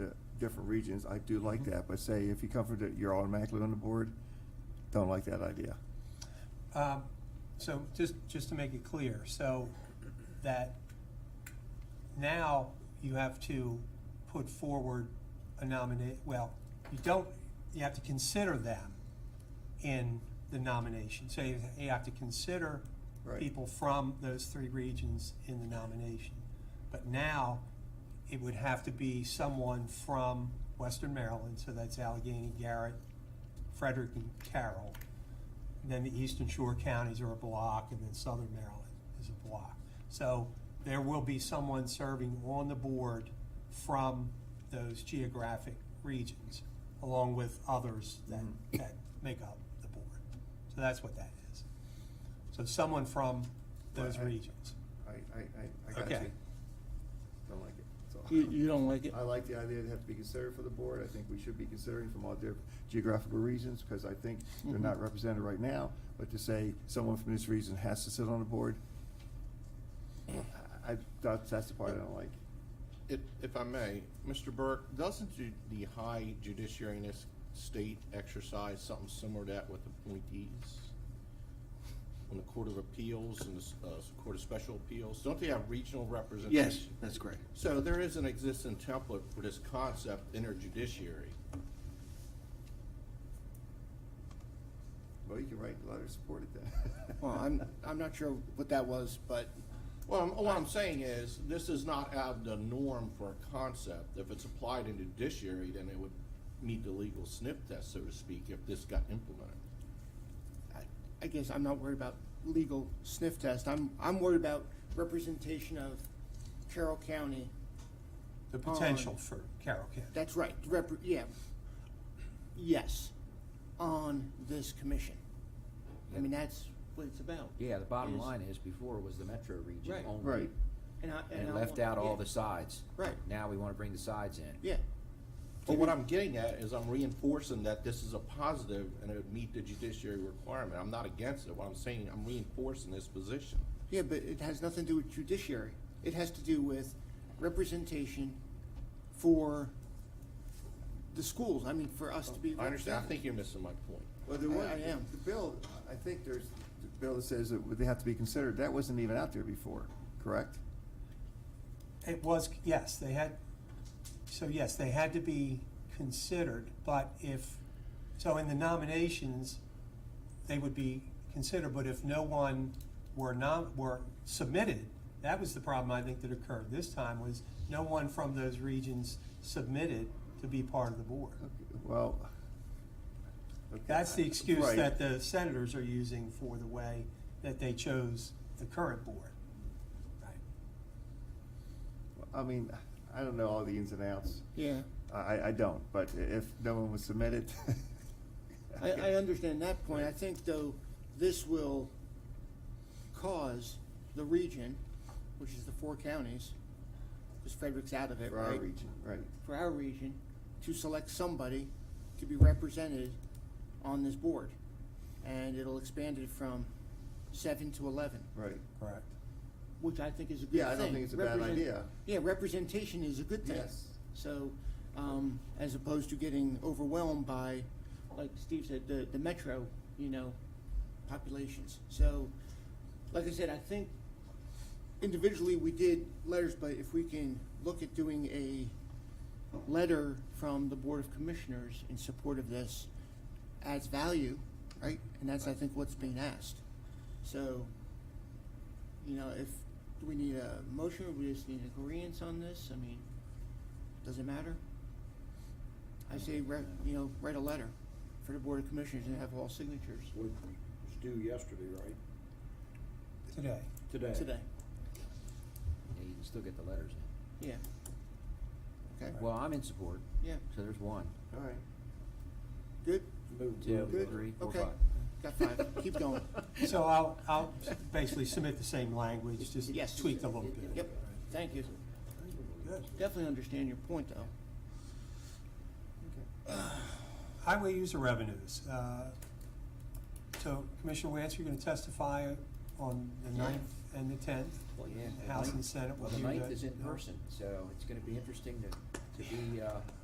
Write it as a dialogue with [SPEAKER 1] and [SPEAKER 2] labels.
[SPEAKER 1] different regions, I do like that, but say if you come from, the- you're automatically on the board, don't like that idea.
[SPEAKER 2] Um, So just, just to make it clear, so that now you have to put forward a nominate, well, you don't, you have to consider them in the nomination. So you you have to consider
[SPEAKER 1] Right.
[SPEAKER 2] people from those three regions in the nomination. But now, it would have to be someone from Western Maryland, so that's Allegheny, Garrett, Frederick, and Carroll. Then the Eastern Shore counties are a block, and then Southern Maryland is a block. So there will be someone serving on the board from those geographic regions, along with others that, that make up the board. So that's what that is. So someone from those
[SPEAKER 1] Right, I-
[SPEAKER 2] regions.
[SPEAKER 1] I, I, I, I got
[SPEAKER 2] Okay.
[SPEAKER 1] you. Don't like it. so.
[SPEAKER 3] You, you don't like it?
[SPEAKER 1] I like the idea it have to be considered for the board. I think we should be considering from all different geographical reasons, because I think they're not represented right now. But to say someone from this region has to sit on the board, I, I- that's, that's the part I don't like.
[SPEAKER 4] If, if I may, Mr. Burke, doesn't ju- the high judiciary in this state exercise something similar to that with appointees? On the Court of Appeals and the s- uh, Court of Special Appeals, don't they have regional representation?
[SPEAKER 5] Yes, that's correct.
[SPEAKER 4] So there is an existing template for this concept in our judiciary.
[SPEAKER 1] Well, you can write a letter supporting that.
[SPEAKER 5] Well, I'm, I'm not sure what that was, but
[SPEAKER 4] Well, I'm- what I'm saying is, this is not out of the norm for a concept. If it's applied in judiciary, then it would meet the legal sniff test, so to speak, if this got implemented.
[SPEAKER 5] I- I guess I'm not worried about legal sniff test. I'm, I'm worried about representation of Carroll County.
[SPEAKER 2] The
[SPEAKER 5] On-
[SPEAKER 2] potential for Carroll County.
[SPEAKER 5] That's right, rep, yeah. Yes, on this commission. I mean, that's what it's about.
[SPEAKER 6] Yeah, the bottom line is before was the metro region
[SPEAKER 5] Right.
[SPEAKER 6] only.
[SPEAKER 1] Right.
[SPEAKER 5] And I,
[SPEAKER 6] And
[SPEAKER 5] I
[SPEAKER 6] it left
[SPEAKER 5] want-
[SPEAKER 6] out all
[SPEAKER 5] yeah,
[SPEAKER 6] the sides.
[SPEAKER 5] Right.
[SPEAKER 6] Now we wanna bring the sides in.
[SPEAKER 5] Yeah,
[SPEAKER 4] But what I'm getting at is I'm reinforcing that this is a positive and it would meet the judiciary requirement. I'm not against it. What I'm saying, I'm reinforcing this position.
[SPEAKER 5] yeah, but it has nothing to do with judiciary. It has to do with representation for the schools. I mean, for us to be.
[SPEAKER 4] I understand. I
[SPEAKER 5] represented.
[SPEAKER 4] think you're missing my point.
[SPEAKER 1] Well, there
[SPEAKER 5] I-
[SPEAKER 1] was,
[SPEAKER 5] I am.
[SPEAKER 1] the bill, I think there's, the bill that says that they have to be considered, that wasn't even out there before, correct?
[SPEAKER 2] It was, yes, they had, so yes, they had to be considered, but if, so in the nominations, they would be considered, but if no one were nom, were submitted, that was the problem I think that occurred this time, was no one from those regions submitted to be part of the board.
[SPEAKER 1] Okay, Well. okay,
[SPEAKER 2] That's the excuse
[SPEAKER 1] right.
[SPEAKER 2] that the senators are using for the way that they chose the current board. Right.
[SPEAKER 1] I mean, I don't know all the ins and outs.
[SPEAKER 5] Yeah.
[SPEAKER 1] I, I don't, but if no one was submitted.
[SPEAKER 5] I, I understand that point. I think though, this will cause the region, which is the four counties, because Frederick's out of it,
[SPEAKER 1] For our
[SPEAKER 5] right?
[SPEAKER 1] region, right.
[SPEAKER 5] For our region, to select somebody to be represented on this board. And it'll expand it from seven to eleven,
[SPEAKER 1] Right.
[SPEAKER 2] Correct.
[SPEAKER 5] which I think is a good thing.
[SPEAKER 1] Yeah, I don't think it's a bad
[SPEAKER 5] Represent-
[SPEAKER 1] idea.
[SPEAKER 5] Yeah, representation is a good thing.
[SPEAKER 1] Yes.
[SPEAKER 5] So, um, as opposed to getting overwhelmed by, like Steve said, the, the metro, you know, populations. So, like I said, I think individually we did letters, but if we can look at doing a letter from the Board of Commissioners in support of this adds value, right? And that's, I think, what's being asked. So, you know, if, do we need a motion or we just need agreeance on this? I mean, does it matter? I say, re- you know, write a letter for the Board of Commissioners and have all signatures
[SPEAKER 7] was due yesterday, right?
[SPEAKER 2] Today.
[SPEAKER 7] Today.
[SPEAKER 5] today.
[SPEAKER 6] Yeah, you can still get the letters in.
[SPEAKER 5] Yeah. Okay,
[SPEAKER 6] Well, I'm in support,
[SPEAKER 5] yeah,
[SPEAKER 6] so there's one,
[SPEAKER 1] All right.
[SPEAKER 5] good,
[SPEAKER 7] Moved
[SPEAKER 6] two,
[SPEAKER 7] to-
[SPEAKER 6] three, four,
[SPEAKER 5] okay,
[SPEAKER 6] five.
[SPEAKER 5] got five, keep going.
[SPEAKER 2] So I'll, I'll basically submit the same language, just
[SPEAKER 5] Yes.
[SPEAKER 2] tweaked a little bit.
[SPEAKER 5] Yep, thank you.
[SPEAKER 2] Good.
[SPEAKER 5] Definitely understand your point, though.
[SPEAKER 2] Highway user revenues. uh, So Commissioner Wance, you're gonna testify on the ninth and the tenth,
[SPEAKER 6] Well, yeah, the
[SPEAKER 2] House and
[SPEAKER 6] ninth-
[SPEAKER 2] Senate. will
[SPEAKER 6] Well, the
[SPEAKER 2] do
[SPEAKER 6] ninth
[SPEAKER 2] that.
[SPEAKER 6] is in person, so it's gonna be interesting to, to be, uh,